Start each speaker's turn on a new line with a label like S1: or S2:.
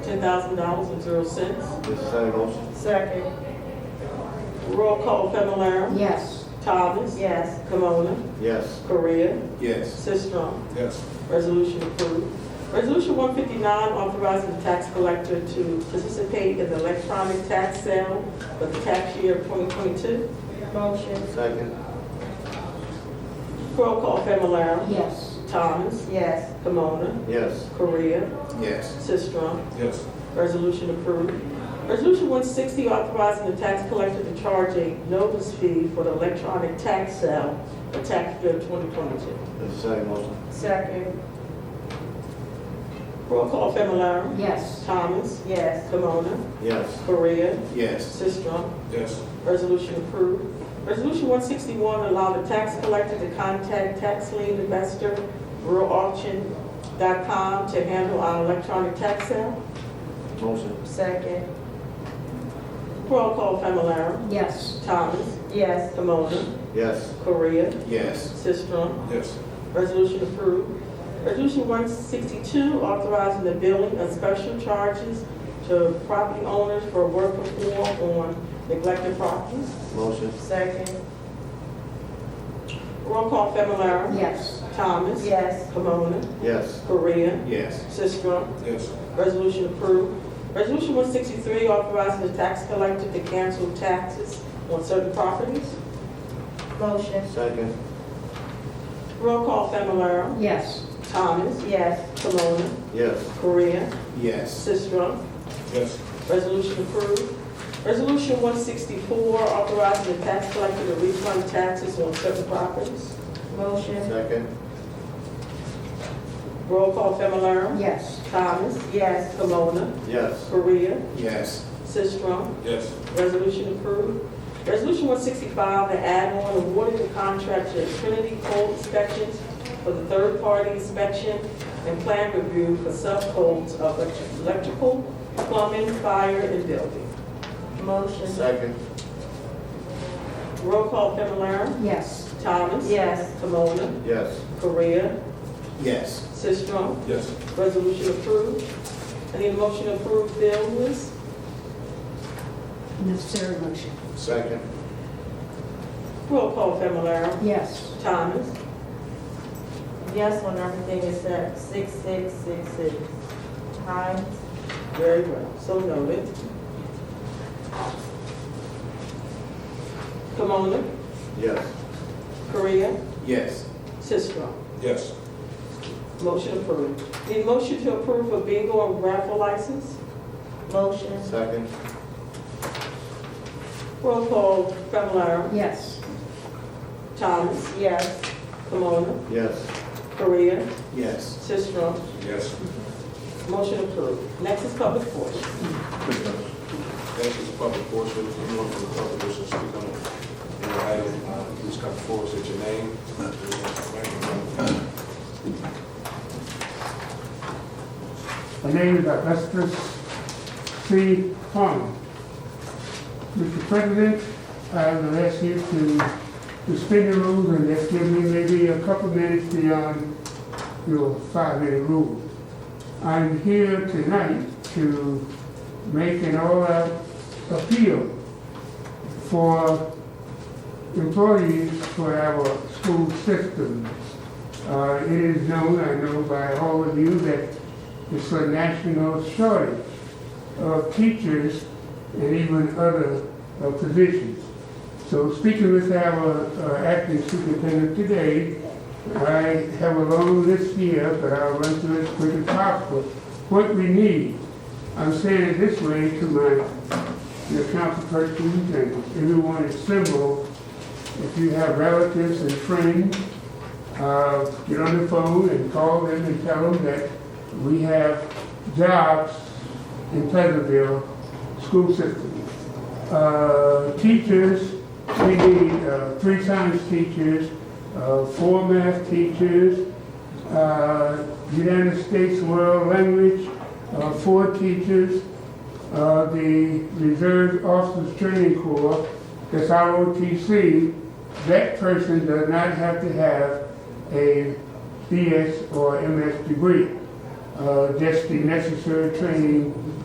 S1: ten thousand dollars and zero cents.
S2: This is a motion.
S3: Second.
S1: Roll call Familar,
S3: Yes.
S1: Thomas.
S3: Yes.
S1: Kimona,
S2: Yes.
S1: Korea,
S2: Yes.
S1: Sistrum.
S2: Yes.
S1: Resolution approved. Resolution one fifty-nine, authorizing the tax collector to participate in the electronic tax sale for the tax year twenty twenty-two.
S3: Motion.
S2: Second.
S1: Roll call Familar,
S3: Yes.
S1: Thomas,
S3: Yes.
S1: Kimona,
S2: Yes.
S1: Korea,
S2: Yes.
S1: Sistrum.
S2: Yes.
S1: Resolution approved. Resolution 160, authorizing the tax collector to charge a notice fee for the electronic tax sale for tax year 2022.
S2: This is a motion.
S3: Second.
S1: Roll call Familar,
S3: Yes.
S1: Thomas,
S3: Yes.
S1: Kimona,
S2: Yes.
S1: Korea,
S2: Yes.
S1: Sistrum.
S2: Yes.
S1: Resolution approved. Resolution 161, allow the tax collector to contact tax lien investor, realauction.com, to handle our electronic tax sale.
S2: Motion.
S3: Second.
S1: Roll call Familar,
S3: Yes.
S1: Thomas,
S3: Yes.
S1: Kimona,
S2: Yes.
S1: Korea,
S2: Yes.
S1: Sistrum.
S2: Yes.
S1: Resolution approved. Resolution 162, authorizing the billing of special charges to property owners for work performed on neglected properties.
S2: Motion.
S3: Second.
S1: Roll call Familar.
S3: Yes.
S1: Thomas.
S3: Yes.
S1: Camona.
S2: Yes.
S1: Korea.
S2: Yes.
S1: Sistrum.
S2: Yes.
S1: Resolution approved. Resolution 163, authorizing the tax collector to cancel taxes on certain properties.
S3: Motion.
S2: Second.
S1: Roll call Familar.
S3: Yes.
S1: Thomas.
S3: Yes.
S1: Camona.
S2: Yes.
S1: Korea.
S2: Yes.
S1: Sistrum.
S2: Yes.
S1: Resolution approved. Resolution 164, authorizing the tax collector to refund taxes on certain properties.
S3: Motion.
S2: Second.
S1: Roll call Familar.
S3: Yes.
S1: Thomas.
S3: Yes.
S1: Camona.
S2: Yes.
S1: Korea.
S2: Yes.
S1: Sistrum.
S2: Yes.
S1: Resolution approved. Resolution 165, the add-on awarding the contract to Trinity Code Inspections for the third-party inspection and plan review for subcodes of electric- electrical, plumbing, fire, and building.
S3: Motion.
S2: Second.
S1: Roll call Familar.
S3: Yes.
S1: Thomas.
S3: Yes.
S1: Camona.
S2: Yes.
S1: Korea.
S2: Yes.
S1: Sistrum,
S2: Yes.
S1: resolution approved. I need a motion to approve bill list.
S3: Necessary motion.
S2: Second.
S1: Roll call Familar,
S3: Yes.
S1: Thomas,
S3: Yes on everything except six, six, six, six. Hines.
S1: very well, so noted. Camona,
S2: Yes.
S1: Korea,
S2: Yes.
S1: Sistrum,
S2: Yes.
S1: motion approved. Need a motion to approve a bingo and raffle license.
S3: Motion.
S2: Second.
S1: Roll call Familar,
S3: Yes.
S1: Thomas,
S3: Yes.
S1: Camona,
S2: Yes.
S1: Korea,
S2: Yes.
S1: Sistrum,
S2: Yes.
S1: motion approved. Next is public portion.
S4: Next is the public portion, if anyone from the public wishes to speak on the item, uh, please come forward, state your name.
S5: The name is Augustus C. Fung. Mr. President, I will ask you to suspend the rules and just give me maybe a couple minutes beyond your five-minute rule. I'm here tonight to make an oral appeal for employees for our school system. Uh, It is known, I know by all of you, that it's a national shortage of teachers and even other uh, positions. So speaking with our uh, acting superintendent today, I have a long list here, but I'll run through it as quick as possible. What we need, I'm saying it this way to my, your council persons and everyone assembled, if you have relatives and friends, uh, get on the phone and call them and tell them that we have jobs in Pleasantville school system. Uh, Teachers, we need uh, three science teachers, uh, four math teachers, uh, United States World Language, uh, four teachers, uh, the Reserve Officers Training Corps, that's ROTC, that person does not have to have a BS or MS degree. Uh, Just the necessary training